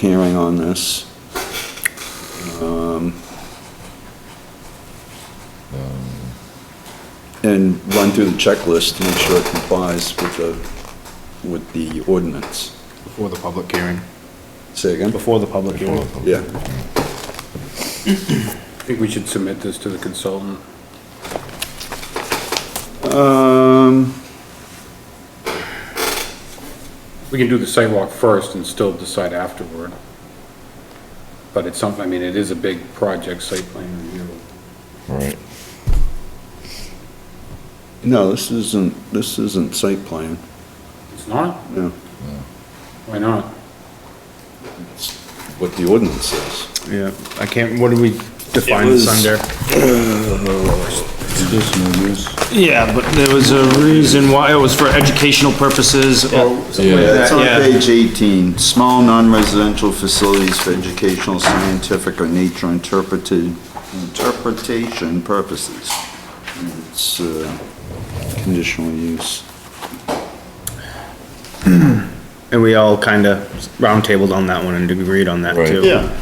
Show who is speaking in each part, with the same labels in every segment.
Speaker 1: hearing on this. Um, And run through the checklist to make sure it complies with the, with the ordinance.
Speaker 2: Before the public hearing.
Speaker 1: Say again?
Speaker 2: Before the public hearing.
Speaker 1: Yeah,
Speaker 3: I think we should submit this to the consultant.
Speaker 1: um,
Speaker 3: We can do the sidewalk first and still decide afterward. But it's something, I mean, it is a big project, site plan review.
Speaker 4: Right.
Speaker 1: no, this isn't, this isn't site plan,
Speaker 3: It's not?
Speaker 1: no,
Speaker 3: Why not?
Speaker 1: it's what the ordinance says.
Speaker 2: Yeah, I can't, what do we define
Speaker 1: It
Speaker 2: this
Speaker 1: was-
Speaker 2: under?
Speaker 4: Conditional use.
Speaker 5: Yeah, but there was a reason why, it was for educational purposes or something like
Speaker 1: It's
Speaker 5: that,
Speaker 1: on
Speaker 5: yeah.
Speaker 1: page 18, small non-residential facilities for educational, scientific, or nature interpreted, interpretation purposes. And It's uh, conditional use.
Speaker 2: And we all kinda roundtabled on that one and agreed on that
Speaker 4: Right.
Speaker 2: too.
Speaker 1: Yeah.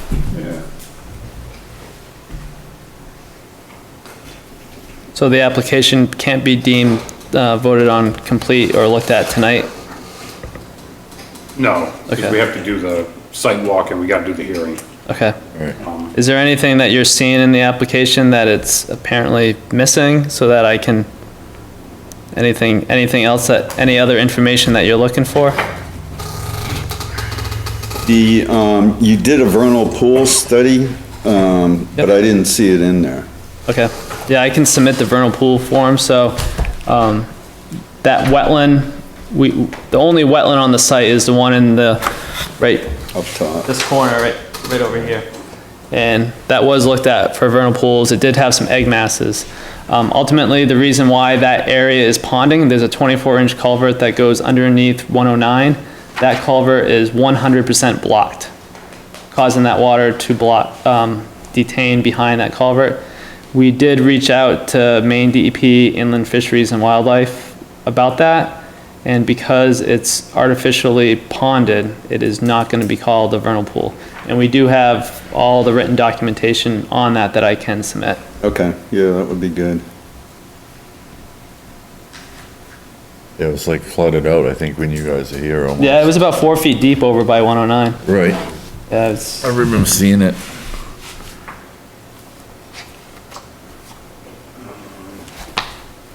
Speaker 6: So the application can't be deemed uh, voted on complete or looked at tonight?
Speaker 3: No, 'cause
Speaker 6: Okay.
Speaker 3: we have to do the sidewalk and we gotta do the hearing.
Speaker 6: Okay.
Speaker 4: Right.
Speaker 3: Um,
Speaker 6: Is there anything that you're seeing in the application that it's apparently missing so that I can, anything, anything else that, any other information that you're looking for?
Speaker 1: The, um, you did a vernal pool study, um, but I didn't see it in there.
Speaker 6: Okay, yeah, I can submit the vernal pool form, so, um, that wetland, we, the only wetland on the site is the one in the, right,
Speaker 1: Up top.
Speaker 6: this corner right, right over here. And that was looked at for vernal pools. It did have some egg masses. Um, ultimately, the reason why that area is ponding, there's a 24-inch culvert that goes underneath 109. That culvert is 100% blocked, causing that water to block, um, detain behind that culvert. We did reach out to Maine DEP, Inland Fisheries and Wildlife about that. And because it's artificially ponded, it is not going to be called a vernal pool. And we do have all the written documentation on that that I can submit.
Speaker 1: Okay, yeah, that would be good.
Speaker 4: Yeah, it was like flooded out, I think, when you guys are here almost.
Speaker 6: Yeah, it was about four feet deep over by 109.
Speaker 4: Right.
Speaker 6: Yeah, it's,
Speaker 4: I remember seeing it.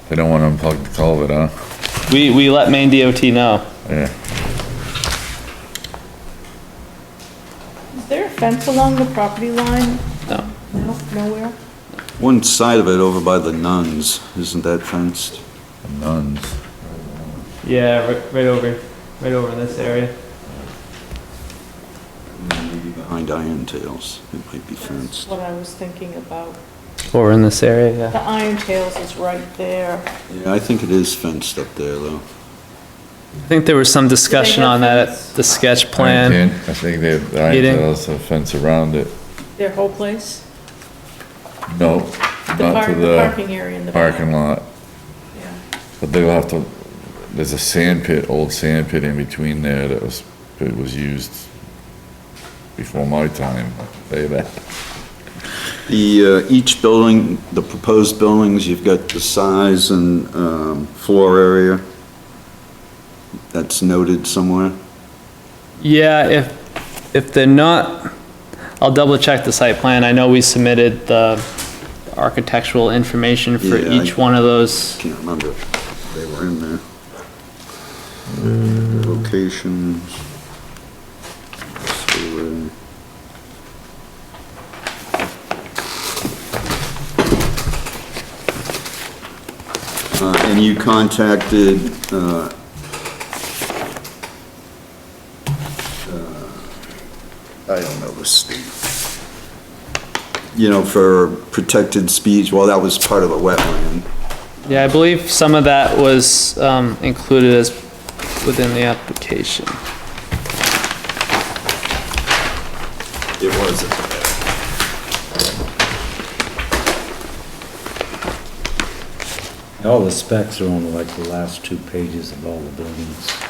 Speaker 4: They don't want to unplug the culvert, huh?
Speaker 6: we, we let Maine DOT know.
Speaker 4: Yeah.
Speaker 7: Is there a fence along the property line?
Speaker 6: No.
Speaker 7: No, nowhere?
Speaker 1: One side of it over by the nuns, isn't that fenced?
Speaker 4: Nuns.
Speaker 6: Yeah, right, right over, right over this area.
Speaker 1: Maybe behind Iron Tails, it might be
Speaker 7: That's
Speaker 1: fenced.
Speaker 7: what I was thinking about.
Speaker 6: Over in this area, yeah.
Speaker 7: The Iron Tails is right there. Do
Speaker 1: Yeah, I think it is fenced up there, though.
Speaker 6: I think there was some discussion on that at the sketch plan.
Speaker 4: Iron tin. I think they, have iron
Speaker 6: Heating.
Speaker 4: tails, a fence around it.
Speaker 7: Their whole place?
Speaker 4: No,
Speaker 7: The
Speaker 4: not
Speaker 7: park,
Speaker 4: to
Speaker 7: the
Speaker 4: the
Speaker 7: parking area in the back.
Speaker 4: parking lot,
Speaker 7: Yeah.
Speaker 4: but they'll have to, there's a sand pit, old sand pit in between there that was, that was used before my time, say that.
Speaker 1: The, uh, each building, the proposed buildings, you've got the size and um, floor area. That's noted somewhere.
Speaker 6: Yeah, if, if they're not, I'll double check the site plan. I know we submitted the architectural information for
Speaker 1: Yeah, I-
Speaker 6: each one of those.
Speaker 1: Can't remember. if They were in there. Locations. So, uh, uh, And you contacted, uh, uh, I don't know the state. You know, for protected speech, well, that was part of a wetland.
Speaker 6: Yeah, I believe some of that was um, included as within the application.
Speaker 1: It was.
Speaker 8: All the specs are on like the last two pages of all the buildings.